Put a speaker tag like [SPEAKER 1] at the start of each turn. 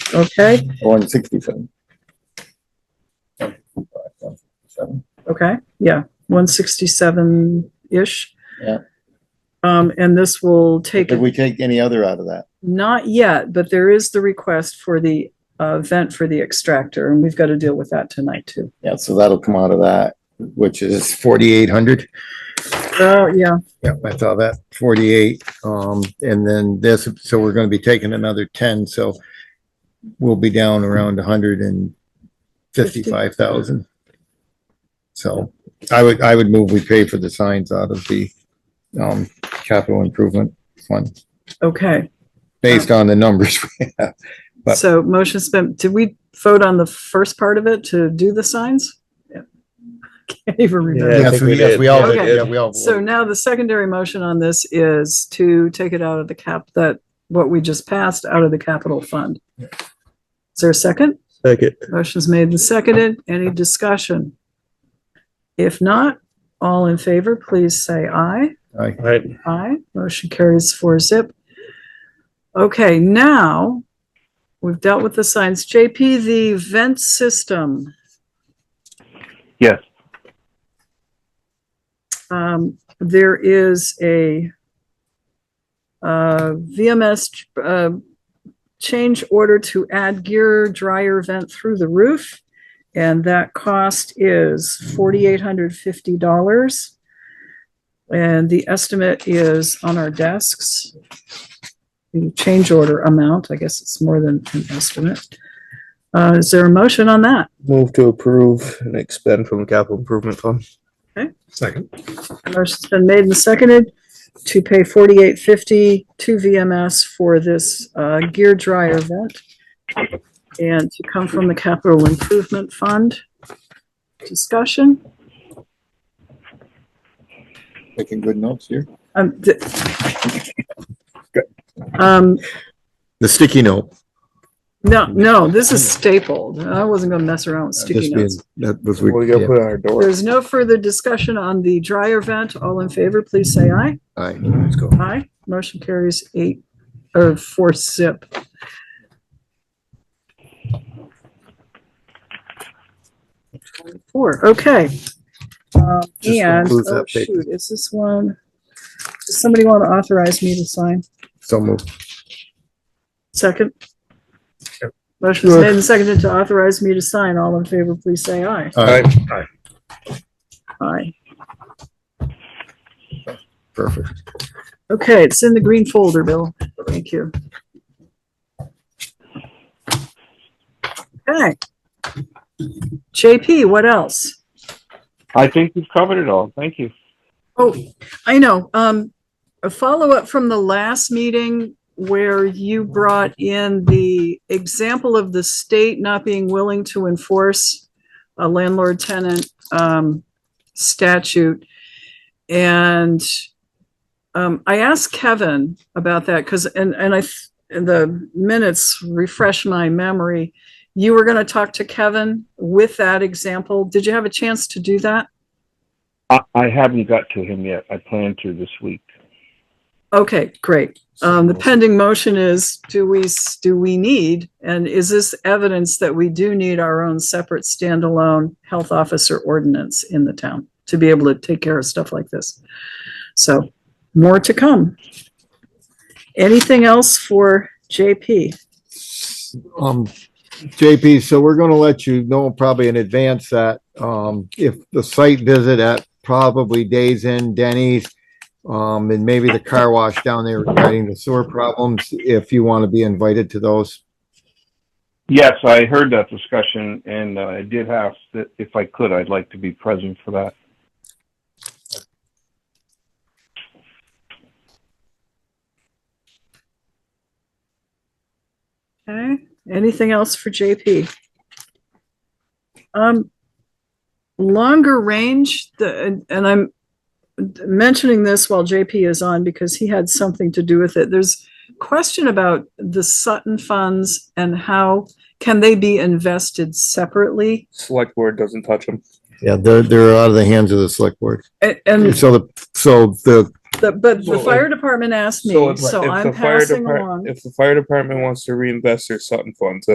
[SPEAKER 1] Okay,
[SPEAKER 2] one sixty-seven.
[SPEAKER 1] okay, yeah, one sixty-seven-ish.
[SPEAKER 2] Yeah.
[SPEAKER 1] Um, and this will take,
[SPEAKER 2] Did we take any other out of that?
[SPEAKER 1] not yet, but there is the request for the uh, vent for the extractor, and we've got to deal with that tonight too.
[SPEAKER 2] Yeah, so that'll come out of that, which is forty-eight hundred.
[SPEAKER 1] Oh, yeah,
[SPEAKER 2] Yeah, I saw that, forty-eight, um, and then this, so we're gonna be taking another ten, so we'll be down around hundred and fifty-five thousand. So I would, I would move we pay for the signs out of the, um, capital improvement fund,
[SPEAKER 1] okay.
[SPEAKER 2] based on the numbers we have. But-
[SPEAKER 1] So motion's been, did we vote on the first part of it to do the signs? Yeah. Can't even remember.
[SPEAKER 3] Yeah,
[SPEAKER 2] Yes,
[SPEAKER 3] I think
[SPEAKER 2] we,
[SPEAKER 3] we
[SPEAKER 2] yes,
[SPEAKER 3] did.
[SPEAKER 2] we all,
[SPEAKER 1] Yeah,
[SPEAKER 2] did.
[SPEAKER 1] we
[SPEAKER 2] yeah, we all.
[SPEAKER 1] So now the secondary motion on this is to take it out of the cap, that, what we just passed, out of the capital fund. Is there a second?
[SPEAKER 3] Second.
[SPEAKER 1] Motion's made and seconded. Any discussion? If not, all in favor, please say aye.
[SPEAKER 2] Aye.
[SPEAKER 3] All right.
[SPEAKER 1] Aye. Motion carries four zip. Okay, now we've dealt with the signs. JP, the vent system.
[SPEAKER 4] Yes.
[SPEAKER 1] Um, there is a uh, VMS uh, change order to add gear dryer vent through the roof. And that cost is forty-eight hundred fifty dollars. And the estimate is on our desks. The change order amount, I guess it's more than an estimate. Uh, is there a motion on that?
[SPEAKER 3] Move to approve and expend from capital improvement fund.
[SPEAKER 1] Motion's been made and seconded to pay forty-eight fifty to VMS for this, uh, gear dryer vent. And to come from the capital improvement fund. Discussion,
[SPEAKER 2] Making good notes here.
[SPEAKER 1] um, d- Um,
[SPEAKER 2] The sticky note.
[SPEAKER 1] no, no, this is stapled. I wasn't gonna mess around with sticky
[SPEAKER 2] Just being-
[SPEAKER 1] notes.
[SPEAKER 2] That was.
[SPEAKER 3] We gotta put on our door.
[SPEAKER 1] There's no further discussion on the dryer vent. All in favor, please say aye.
[SPEAKER 2] Aye, let's go.
[SPEAKER 1] Aye. Motion carries eight, or four zip. Four, okay. Um,
[SPEAKER 2] Just
[SPEAKER 1] And,
[SPEAKER 2] includes
[SPEAKER 1] oh
[SPEAKER 2] that paper.
[SPEAKER 1] shoot, is this one? Does somebody want to authorize me to sign?
[SPEAKER 2] So moved.
[SPEAKER 1] Second? Motion is made and seconded to authorize me to sign. All in favor, please say aye.
[SPEAKER 2] Aye,
[SPEAKER 1] Aye.
[SPEAKER 2] perfect.
[SPEAKER 1] Okay, it's in the green folder, Bill. Thank you. Okay. JP, what else?
[SPEAKER 4] I think we've covered it all. Thank you.
[SPEAKER 1] Oh, I know, um, a follow-up from the last meeting where you brought in the example of the state not being willing to enforce a landlord-tenant, um, statute. And, um, I asked Kevin about that, because, and, and I, th- and the minutes refresh my memory. You were gonna talk to Kevin with that example. Did you have a chance to do that?
[SPEAKER 4] I, I haven't got to him yet. I plan to this week.
[SPEAKER 1] Okay, great. Um, the pending motion is, do we, s- do we need, and is this evidence that we do need our own separate standalone health officer ordinance in the town to be able to take care of stuff like this? So more to come. Anything else for JP?
[SPEAKER 2] Um, JP, so we're gonna let you know probably in advance that, um, if the site visit at probably Days End Denny's, um, and maybe the car wash down there regarding the sewer problems, if you want to be invited to those.
[SPEAKER 4] Yes, I heard that discussion and uh, I did ask that if I could, I'd like to be present for that.
[SPEAKER 1] Okay, anything else for JP? Um, longer range, the, and- and I'm mentioning this while JP is on because he had something to do with it. There's question about the Sutton funds and how can they be invested separately?
[SPEAKER 3] Select board doesn't touch them.
[SPEAKER 2] Yeah, they're, they're out of the hands of the select board.
[SPEAKER 1] And, and
[SPEAKER 2] So the, so the
[SPEAKER 1] the, but the
[SPEAKER 3] Well,
[SPEAKER 1] fire department asked me, so I'm passing along.
[SPEAKER 3] If the fire department wants to reinvest their Sutton funds,